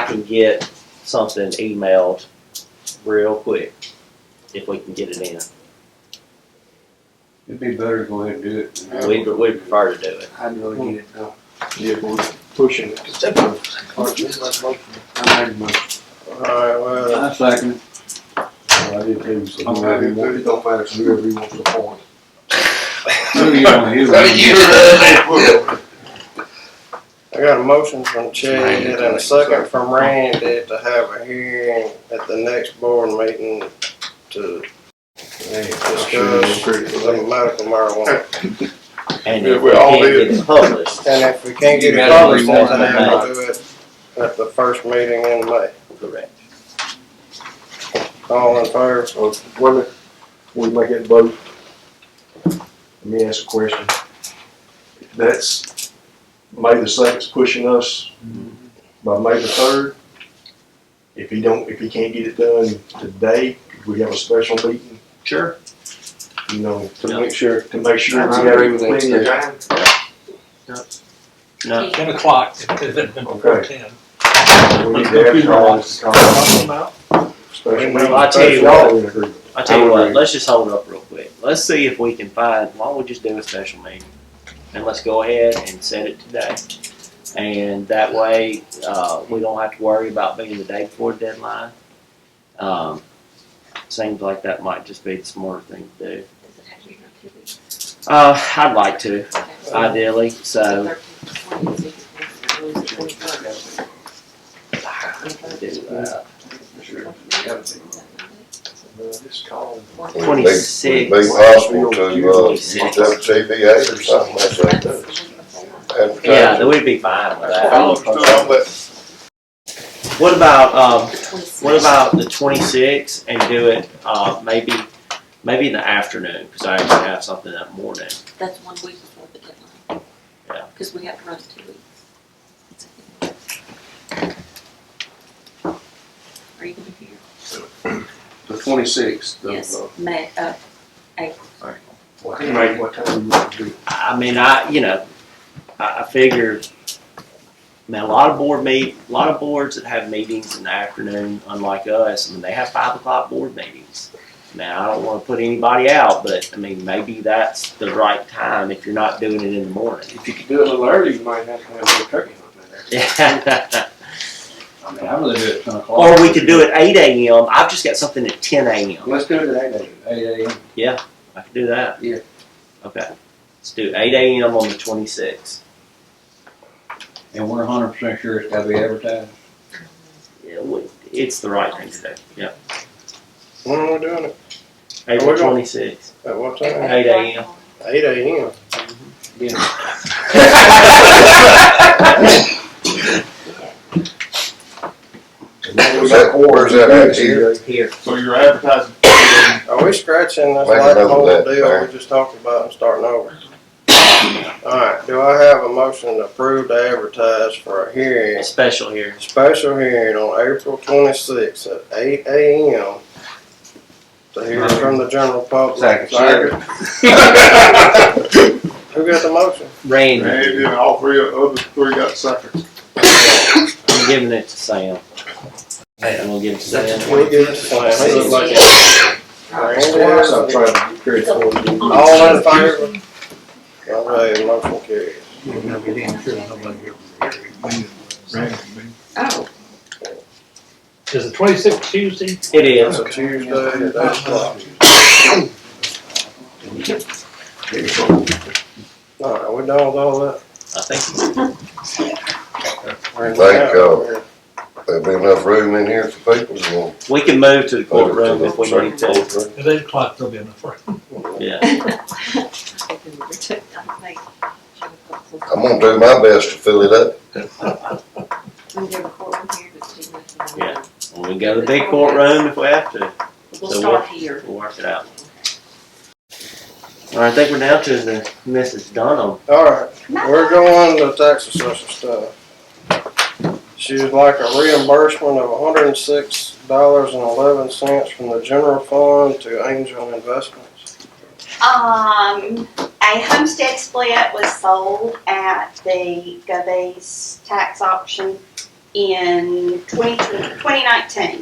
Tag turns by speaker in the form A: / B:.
A: can get something emailed real quick if we can get it in.
B: It'd be better to go ahead and do it. than-
A: We we prefer to do it.
B: I'd really get it done.
C: Yeah, we're pushing it.
B: I made a motion.
C: Alright, well,
B: I second it. I did too, so.
C: I'm happy, it don't matter, so whoever he wants to appoint.
B: Who you wanna hear?
D: I got a motion from Chad and a second from Randy to have a hearing at the next board meeting to discuss the medical marijuana.
A: And
C: Yeah,
A: if
C: we
A: we
C: all
A: can't
C: do.
A: get it published,
D: And if we can't get it published, then we'll do it at the first meeting in May.
A: correct.
D: All in favor?
C: Uh, Wait a minute, we make that vote. Let me ask a question. That's, May the second's pushing us by May the third. If he don't, if he can't get it done today, could we have a special meeting,
A: Sure.
C: you know,
A: Yeah.
C: to make sure, to make sure. we
E: I
C: have
E: agree with that,
C: plenty of
E: too.
C: time?
A: No,
F: Ten o'clock, if it had been before ten.
C: We need to have Charles to call a special meeting.
A: I tell you
C: That's in agreement.
A: I tell you
C: I
A: what,
C: agree.
A: let's just hold up real quick. Let's see if we can find, why don't we just do a special meeting? And let's go ahead and set it today. And that way, uh, we don't have to worry about being the day before deadline. Um, seems like that might just be the smarter thing to do.
F: Does it have to be around two weeks?
A: Uh, I'd like to,
F: Okay.
A: ideally, so. do that.
C: Just call him.
A: Twenty-six.
G: Would it be possible to, uh,
A: Twenty-six.
G: have TBA or something like that? Advertise
A: Yeah,
G: it.
A: then we'd be fine with
G: I'll-
A: that.
G: I'll let-
A: What about, um, What
F: What
A: about the 26th and do it uh, maybe maybe in the afternoon because I actually have something that morning.
F: That's one week before the deadline.
A: Yeah.
F: Cause we have to run two weeks. Are you gonna be here?
B: The twenty-sixth.
F: Yes, May, uh,
C: Well, he made what time you want to do.
A: I mean, I you know, I, I figure, man, a lot of board meet, a lot of boards that have meetings in the afternoon, unlike us, I mean, they have five o'clock board meetings. Now, I don't want to put anybody out, but I mean, maybe that's the right time if you're not doing it in the morning.
B: If you could do it a little early, you might not have a little turkey on there. I mean, I really do it at ten o'clock.
A: or we could do it 8 a.m. I've just got something at 10 a.m.
B: Let's do it at eight, eight AM.
A: I can do that.
B: Yeah.
A: Okay. Let's do eight AM on the twenty sixth.
B: And we're a hundred percent sure it's gotta be advertised.
A: Yeah, we- it's the right thing to do. Yeah.
D: When are we doing it?
A: April
D: we go.
A: twenty sixth.
D: At what time?
A: Eight AM.
D: Eight AM.
G: Is that, or is that out here?
A: Here.
C: So you're advertising.
D: Are we scratching this
G: Make a
D: last
G: note of
D: whole
G: that,
D: deal
G: Mayor.
D: we just talked about and starting over? Alright, do I have a motion to approve to advertise for a hearing,
A: Special here.
D: special hearing on April twenty-sixth at eight AM? To hear from the general public.
B: Second.
D: Who got the motion?
A: Rain.
C: And then all three, other three got seconds.
A: I'm giving it to Sam. I'm gonna give it to Sam.
D: We give it to Sam. He look like it.
C: I'm
D: Randy,
C: trying to be careful.
D: All in favor? Okay, motion carries.
F: Oh,
E: Is the twenty-sixth Tuesday?
A: It is.
D: It's a Tuesday at eight o'clock. Alright, we done with all that?
A: I think
G: Thank
D: Thank
G: God. There'd be enough room in here for people to go.
A: we can move to the courtroom if we need to.
E: At eight o'clock, they'll be in the front.
A: Yeah.
G: I'm gonna do my best to fill it up.
A: Yeah. Well, we go to the big courtroom if we have to.
F: We'll
A: So
F: start here.
A: We'll work it out. All right, I think we're down to the Mrs. Dunham.
D: Alright, we're going to tax assessor stuff. She would like a reimbursement of hundred and six dollars and eleven cents from the general fund to Angel Investments.
H: Um, a homestead split was sold at the Gobies tax auction in 2020 2019.